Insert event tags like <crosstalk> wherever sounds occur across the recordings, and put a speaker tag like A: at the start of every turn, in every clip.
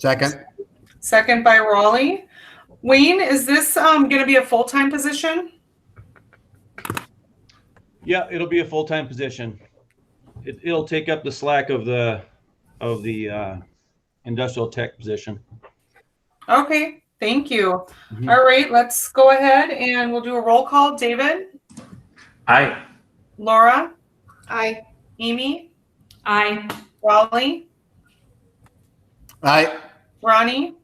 A: Second,
B: Second by Raleigh. Wayne, is this um, going to be a full-time position?
C: Yeah, it'll be a full-time position. It, it'll take up the slack of the, of the, uh, industrial tech position.
B: Okay, thank you.
C: Mhm.
B: All right, let's go ahead and we'll do a roll call. David,
D: Aye.
B: Laura,
E: Aye.
B: Amy,
E: Aye.
B: Raleigh,
A: aye,
B: Ronnie,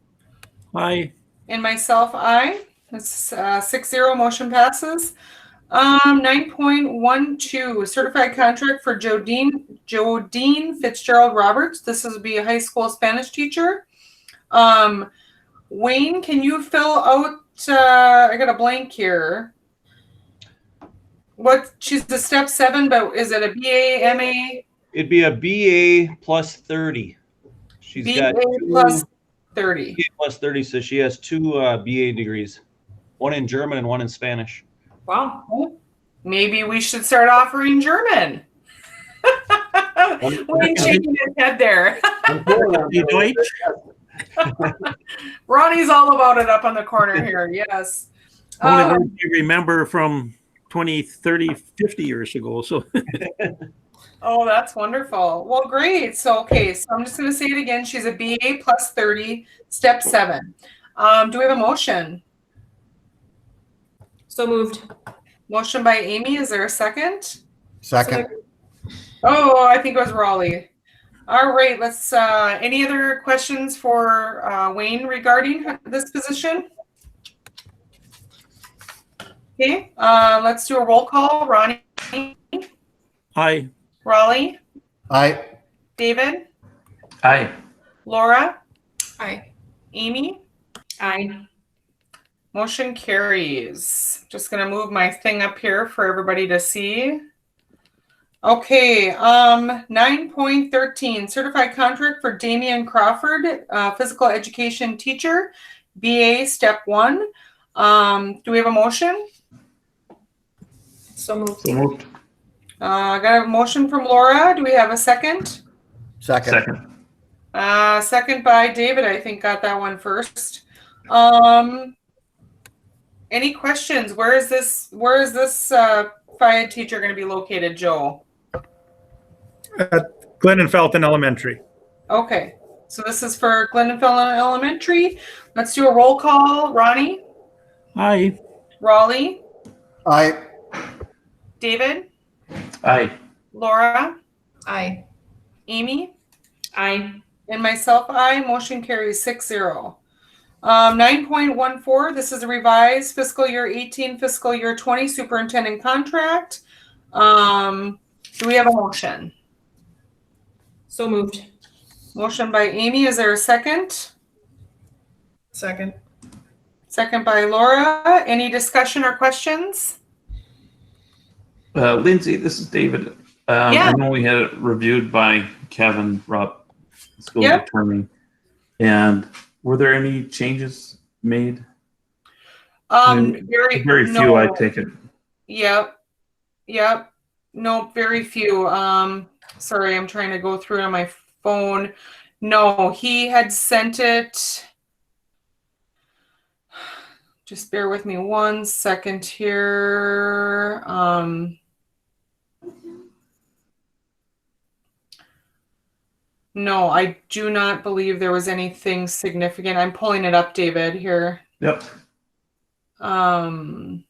D: Aye.
B: and myself, I. That's uh, six zero, motion passes. Um, nine point one two, certified contract for Jodine, Jodine Fitzgerald Roberts. This is be a high school Spanish teacher. Um, Wayne, can you fill out, uh, I got a blank here. What, she's the step seven, but is it a BA, MA,
C: It'd be a BA plus thirty. She's
B: BA
C: got
B: plus
C: two
B: thirty?
C: BA plus thirty, so she has two, uh, BA degrees, one in German and one in Spanish.
E: Wow.
B: Maybe we should start offering German. Wayne shaking his head there. <laughs> Ronnie's all about it up on the corner here. Yes.
F: Oh.
D: Only
B: Um,
D: one I remember from 20, 30, 50 years ago, so. <laughs>
B: Oh, that's wonderful. Well, great. So, okay, so I'm just going to say it again. She's a BA plus 30, step seven. Um, do we have a motion?
E: So moved.
B: Motion by Amy. Is there a second?
A: second,
B: Oh, I think it was Raleigh. All right, let's, uh, any other questions for, uh, Wayne regarding this position? Okay, uh, let's do a roll call. Ronnie,
D: Aye.
B: Raleigh,
A: aye,
B: David,
D: Aye.
B: Laura,
E: Aye.
B: Amy,
E: Aye.
B: motion carries. Just gonna move my thing up here for everybody to see. Okay, um, nine point thirteen, certified contract for Damian Crawford, uh, physical education teacher, BA step one. Um, do we have a motion?
E: So moved.
D: So moved.
B: Uh, got a motion from Laura. Do we have a second?
A: second,
B: Uh, second by David, I think got that one first. Um, any questions? Where is this, where is this, uh, fire teacher gonna be located, Joel?
F: Glennon Felton Elementary.
B: Okay, so this is for Glendenfell Elementary. Let's do a roll call. Ronnie,
D: Aye.
B: Raleigh,
A: aye,
B: David,
D: Aye.
B: Laura,
E: Aye.
B: Amy,
E: Aye.
B: and myself, I, motion carries six zero. Um, nine point one four, this is a revised fiscal year eighteen, fiscal year twenty superintendent contract. Um, do we have a motion?
E: So moved.
B: Motion by Amy, is there a second?
E: Second.
B: Second by Laura, any discussion or questions?
G: Uh, Lindsay, this is David. Um,
B: Yeah.
G: I know we had it reviewed by Kevin Rupp, school
B: Yep.
G: attorney. And were there any changes made?
B: Um, very.
G: Very few,
B: no.
G: I take it.
B: Yep. Yep. Nope, very few. Um, sorry, I'm trying to go through on my phone. No, he had sent it. Just bear with me one second here. Um, no, I do not believe there was anything significant. I'm pulling it up, David, here.
G: Yep.
B: Um,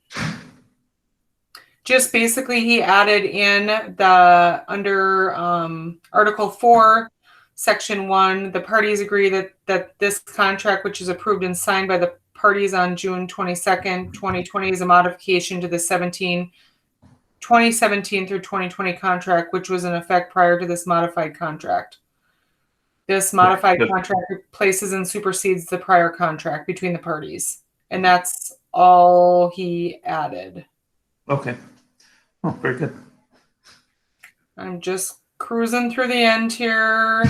B: just basically, he added in the under um, Article Four, Section One. The parties agree that that this contract, which is approved and signed by the parties on June twenty second, twenty twenty, is a modification to the 17, 2017 through twenty twenty contract, which was in effect prior to this modified contract. This modified
G: but-
B: contract replaces and supersedes the prior contract between the parties. And that's all he added.
G: Okay. Oh, very good.
B: I'm just cruising through the end here.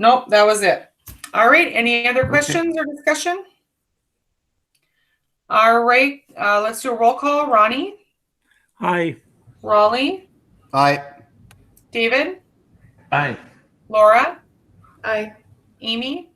B: Nope, that was it. All right, any other questions or discussion? All right, uh, let's do a roll call. Ronnie,
D: Aye.
B: Raleigh,
A: aye,
B: David,
G: Aye.
B: Laura,
E: Aye.
B: Amy,